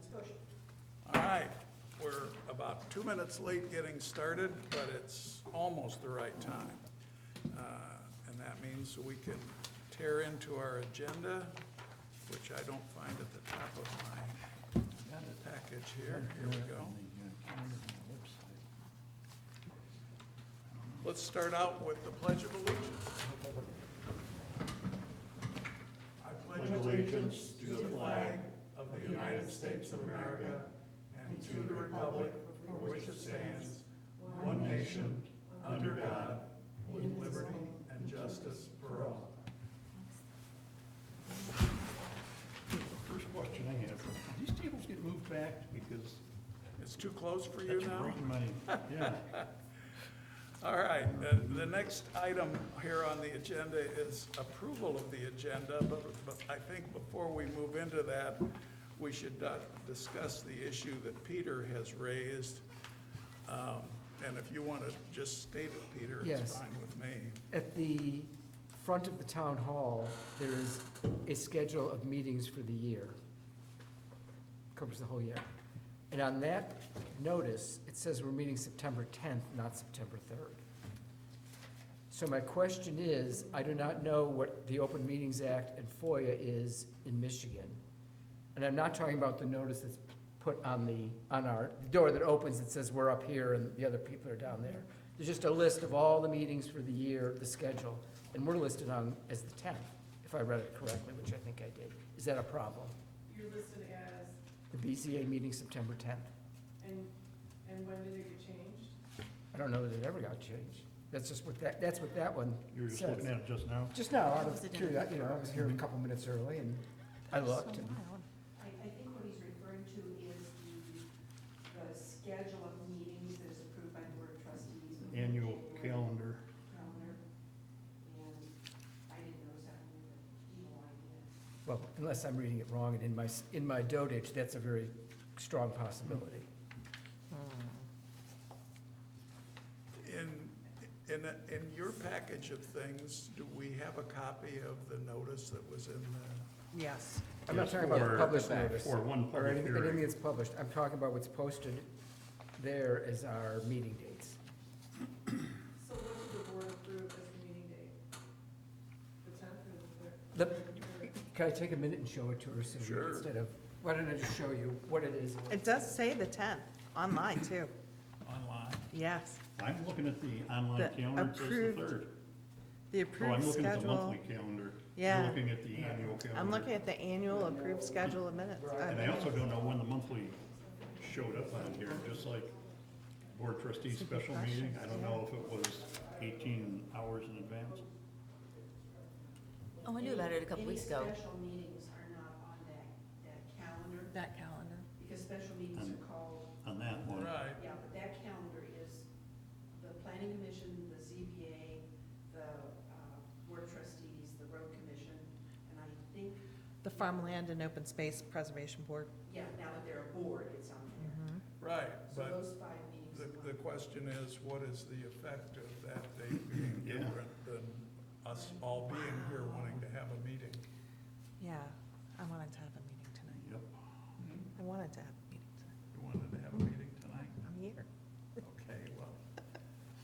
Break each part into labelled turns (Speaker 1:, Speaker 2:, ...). Speaker 1: discussion.
Speaker 2: All right, we're about two minutes late getting started, but it's almost the right time. Uh, And that means we can tear into our agenda, which I don't find at the top of my package here. Here we go. Let's start out with the Pledge of Allegiance.
Speaker 3: First question I have, do these tables get moved back because
Speaker 2: It's too close for you
Speaker 3: that's
Speaker 2: now?
Speaker 3: great money. Yeah,
Speaker 2: All right, the, the next item here on the agenda is approval of the agenda, but, but I think before we move into that, we should uh, discuss the issue that Peter has raised. Um, And if you want to just state it, Peter, it's
Speaker 4: Yes.
Speaker 2: fine with me.
Speaker 4: At the front of the town hall, there is a schedule of meetings for the year. Covers the whole year. And on that notice, it says we're meeting September 10th, not September 3rd. So my question is, I do not know what the Open Meetings Act and FOIA is in Michigan. And I'm not talking about the notice that's put on the, on our the door that opens that says we're up here and the other people are down there. There's just a list of all the meetings for the year, the schedule, and we're listed on as the tenth, if I read it correctly, which I think I did. Is that a problem?
Speaker 1: You're listed as,
Speaker 4: The BZA meeting September tenth.
Speaker 1: and, and when did it get changed?
Speaker 4: I don't know that it ever got changed. That's just what that, that's what that one
Speaker 3: you were just
Speaker 4: says.
Speaker 3: looking at it just now.
Speaker 4: Just now, out
Speaker 5: Was
Speaker 4: of
Speaker 5: it in-
Speaker 4: curiosity, you know, I was here a couple minutes early and I looked and
Speaker 6: I, I think what he's referring to is the, the schedule of meetings that is approved by the Board of Trustees.
Speaker 3: Annual calendar.
Speaker 6: Calendar. And I didn't notice that one, but evil idea.
Speaker 4: Well, unless I'm reading it wrong, and in my, in my dotage, that's a very strong possibility.
Speaker 2: In, in, in your package of things, do we have a copy of the notice that was in the,
Speaker 5: Yes.
Speaker 4: I'm not
Speaker 3: Yes,
Speaker 4: talking about
Speaker 3: for-
Speaker 4: the published notice.
Speaker 3: for one
Speaker 4: Or
Speaker 3: public
Speaker 4: anything anything
Speaker 3: hearing.
Speaker 4: that's published. I'm talking about what's posted there as our meeting dates.
Speaker 1: So what did the board approve as the meeting date? The tenth or the third?
Speaker 4: The, can I take a minute and show it to her, Cindy,
Speaker 2: Sure.
Speaker 4: instead of, why don't I just show you what it is?
Speaker 5: It does say the 10th, online too.
Speaker 2: online?
Speaker 5: Yes.
Speaker 3: I'm looking at the
Speaker 5: The
Speaker 3: online calendar, it says
Speaker 5: approved
Speaker 3: the third.
Speaker 5: The
Speaker 3: Oh, I'm
Speaker 5: approved
Speaker 3: looking at the
Speaker 5: schedule.
Speaker 3: monthly calendar.
Speaker 5: Yeah.
Speaker 3: You're looking at the annual calendar.
Speaker 5: I'm looking at the annual approved schedule of minutes.
Speaker 3: And I
Speaker 5: Uh,
Speaker 3: also don't know when the monthly showed up on here, just like board trustee special meeting, I don't know if it was eighteen hours in advance.
Speaker 7: Oh, I knew about it a couple weeks
Speaker 6: Any
Speaker 7: ago.
Speaker 6: special meetings are not on that, that calendar,
Speaker 5: That calendar.
Speaker 6: because special meetings are called,
Speaker 3: On that one.
Speaker 2: Right,
Speaker 6: yeah, but that calendar is the planning commission, the ZBA, the, uh, Board of Trustees, the road commission, and I think
Speaker 5: The Farmland and Open Space Preservation Board.
Speaker 6: Yeah, now that they're aboard, it's on there.
Speaker 2: right,
Speaker 6: So
Speaker 2: but
Speaker 6: those five meetings.
Speaker 2: The,
Speaker 6: a month.
Speaker 2: the question is, what is the effect of that date being
Speaker 3: Yeah.
Speaker 2: different than us all being here wanting to have a meeting?
Speaker 5: Mm-hmm. Yeah, I wanted to have a meeting tonight.
Speaker 3: Yep.
Speaker 6: Mm-hmm.
Speaker 5: I wanted to have a meeting tonight.
Speaker 2: You wanted to have a meeting tonight?
Speaker 5: I'm here.
Speaker 2: Okay, well,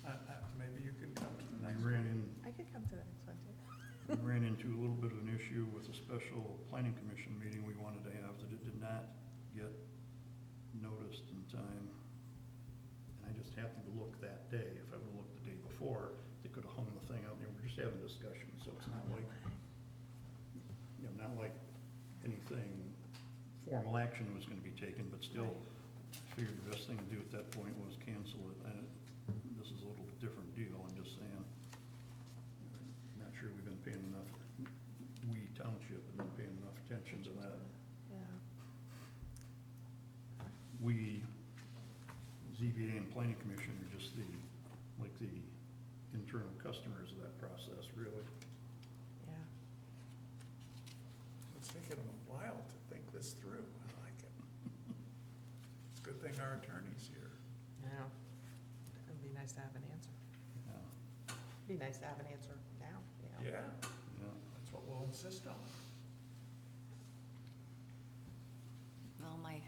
Speaker 2: I, I, maybe you can come to the
Speaker 3: And I
Speaker 2: next
Speaker 3: ran
Speaker 2: meeting.
Speaker 3: in
Speaker 5: I could come to the next one too.
Speaker 3: We ran into a little bit of an issue with a special planning commission meeting we wanted to have that it did not get noticed in time. And I just happened to look that day. If I would've looked the day before, they could've hung the thing out. They were just having discussion, so it's not like, you know, not like anything, formal action was gonna be taken, but still, I figured the best thing to do at that point was cancel it. And this is a little different deal, I'm just saying. Not sure we've been paying enough, we township have been paying enough attention to that.
Speaker 5: Yeah.
Speaker 3: We, ZBA and planning commission are just the, like the internal customers of that process, really.
Speaker 5: Yeah.
Speaker 2: It's taken them a while to think this through. I like it. It's a good thing our attorney's here.
Speaker 5: Yeah. It'd be nice to have an answer.
Speaker 3: Yeah,
Speaker 5: Be nice to have an answer now, you know?
Speaker 2: Yeah,
Speaker 3: yeah.
Speaker 2: that's what we'll insist on.